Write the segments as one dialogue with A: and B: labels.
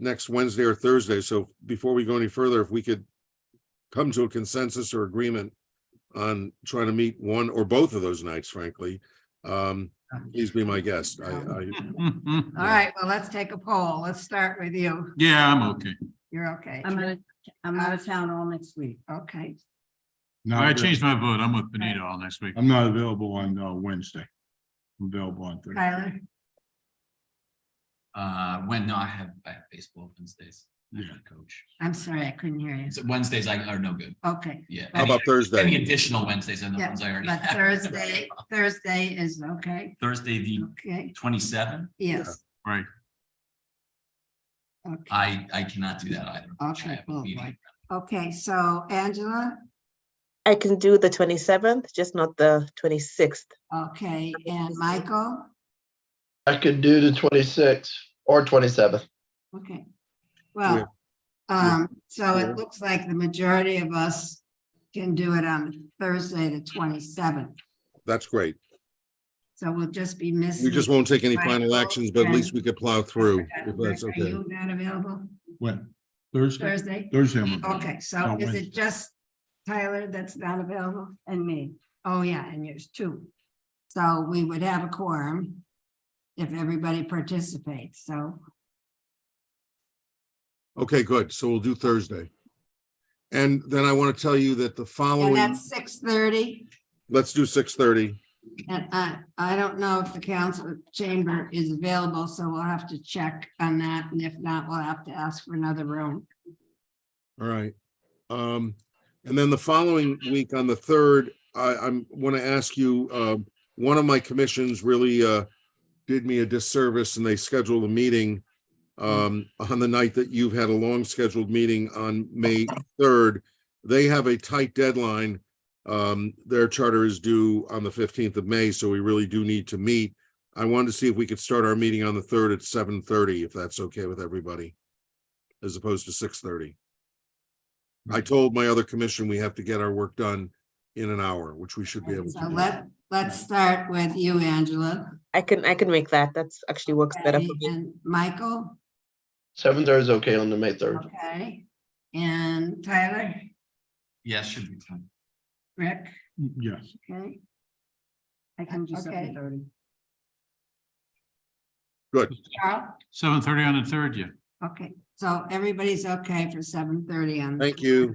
A: next Wednesday or Thursday. So before we go any further, if we could come to a consensus or agreement on trying to meet one or both of those nights, frankly, um, please be my guest. I,
B: um,
A: I,
B: All right, well, let's take a poll. Let's start with you.
C: Yeah, I'm okay.
B: You're okay.
D: I'm out of, I'm out of town all next week.
B: Okay,
E: No,
C: I changed my vote. I'm with Benito all next week.
E: I'm not available on uh, Wednesday. I'm Available on Thursday.
B: Tyler,
F: Uh, when, no, I have, I have baseball Wednesdays. I have
E: Yeah.
F: a Coach.
B: I'm sorry, I couldn't hear you.
F: So Wednesdays I are no good.
B: Okay,
F: Yeah.
A: how about
F: Any
A: Thursday?
F: additional Wednesdays are the
B: Yeah,
F: ones I already
B: but
F: have.
B: Thursday, Thursday is okay.
F: Thursday, the
B: Okay,
F: twenty-seven,
B: yes.
C: Right.
B: Okay,
F: I, I cannot do that either. I
B: Okay,
F: have a
B: well,
F: meeting.
B: right. okay, so Angela,
G: I can do the twenty-seventh, just not the twenty-sixth.
B: okay, and Michael,
H: I could do the twenty-sixth or twenty-seventh.
B: okay. Well, um, so it looks like the majority of us can do it on Thursday, the twenty-seventh.
A: That's great.
B: So we'll just be missing.
A: We just won't take any
B: Right.
A: final actions, but at least we could plow through
B: Are
A: if that's okay.
B: you not available
E: When? Thursday?
B: Thursday?
E: Thursday. I'm available.
B: Okay, so
E: Not
B: is
E: Wednesday.
B: it just Tyler that's not available?
D: And me,
B: Oh, yeah, and yours too. So we would have a quorum if everybody participates, so.
A: Okay, good. So we'll do Thursday. And then I want to tell you that the
B: And
A: following,
B: that's six thirty,
A: let's do six thirty.
B: and I, I don't know if the council chamber is available, so we'll have to check on that, and if not, we'll have to ask for another room.
A: All right. Um, and then the following week on the third, I, I'm, want to ask you, uh, one of my commissions really, uh, did me a disservice and they scheduled a meeting, um, on the night that you've had a long scheduled meeting on May third. They have a tight deadline. Um, their charter is due on the fifteenth of May, so we really do need to meet. I wanted to see if we could start our meeting on the third at seven thirty, if that's okay with everybody, as opposed to six thirty. I
B: Mm-hmm.
A: told my other commission we have to get our work done in an hour, which we should be able
B: So
A: to do.
B: let, let's start with you, Angela.
G: I can, I can make that. That's actually works better for me.
B: And Michael,
H: Seventh is okay on the May third.
B: okay, and Tyler,
F: Yeah, should be fine.
B: Rick,
E: Yes.
B: okay,
D: I can do
B: Okay.
D: seven thirty.
B: Charles,
C: Seven thirty on the third, yeah.
B: okay. So everybody's okay for seven thirty on.
A: Thank you.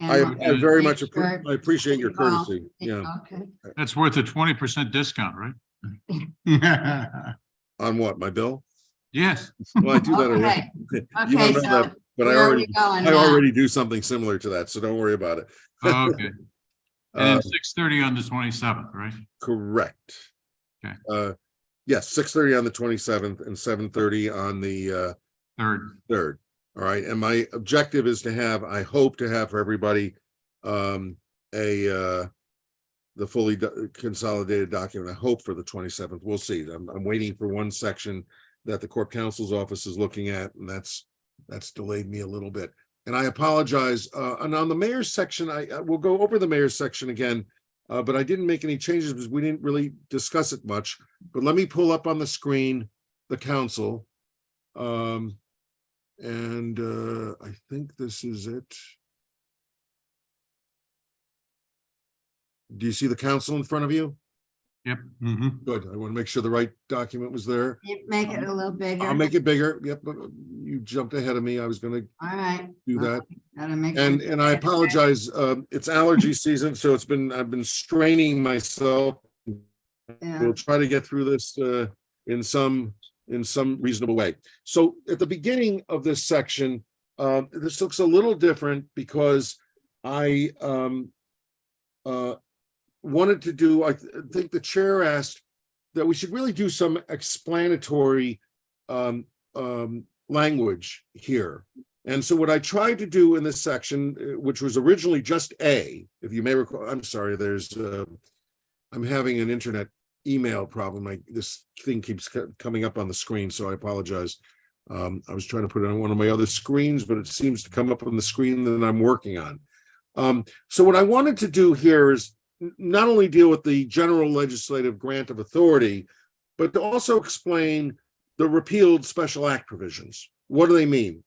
B: and
A: I
B: we'll
A: I very
B: make
A: much,
B: sure-
A: appre- I appreciate your
B: Well,
A: courtesy. Yeah,
B: Okay,
E: Uh,
C: That's worth a twenty percent discount, right?
A: on what, my bill?
C: Yes.
A: Well, I do that already,
B: okay,
A: You don't
B: okay,
A: know
B: so
A: that, but I
B: where are we
A: already,
B: going
A: I
B: now?
A: already do something similar to that, so don't worry about it.
C: Oh, Okay.
A: Uh,
C: And six thirty on the twenty-seventh, right?
A: correct.
C: Okay.
A: Uh, yes, six thirty on the twenty-seventh and seven thirty on the, uh,
C: Third.
A: third. All right, and my objective is to have, I hope to have for everybody, um, a, uh, the fully do- consolidated document, I hope for the twenty-seventh, we'll see. I'm, I'm waiting for one section that the court counsel's office is looking at, and that's, that's delayed me a little bit. And I apologize, uh, and on the mayor's section, I, I will go over the mayor's section again, uh, but I didn't make any changes because we didn't really discuss it much. But let me pull up on the screen the council. Um, and uh, I think this is it. Do you see the council in front of you?
C: Yep. Mm-hmm.
A: Good. I want to make sure the right document was there.
B: You Make it a little bigger.
A: I'll make it bigger. Yep, but you jumped ahead of me. I was gonna
B: All right.
A: do that.
B: Gotta make.
A: And,
B: sure-
A: and I apologize. Um, it's allergy season, so it's been, I've been straining myself.
B: Yeah,
A: We'll try to get through this uh in some, in some reasonable way. So at the beginning of this section, uh, this looks a little different because I um uh wanted to do, I th- think the chair asked that we should really do some explanatory um um language here. And so what I tried to do in this section, uh, which was originally just A, if you may recall, I'm sorry, there's uh I'm having an internet email problem. I, this thing keeps co- coming up on the screen, so I apologize. Um, I was trying to put it on one of my other screens, but it seems to come up on the screen that I'm working on. Um, so what I wanted to do here is n- not only deal with the general legislative grant of authority, but to also explain the repealed special act provisions. What do they mean?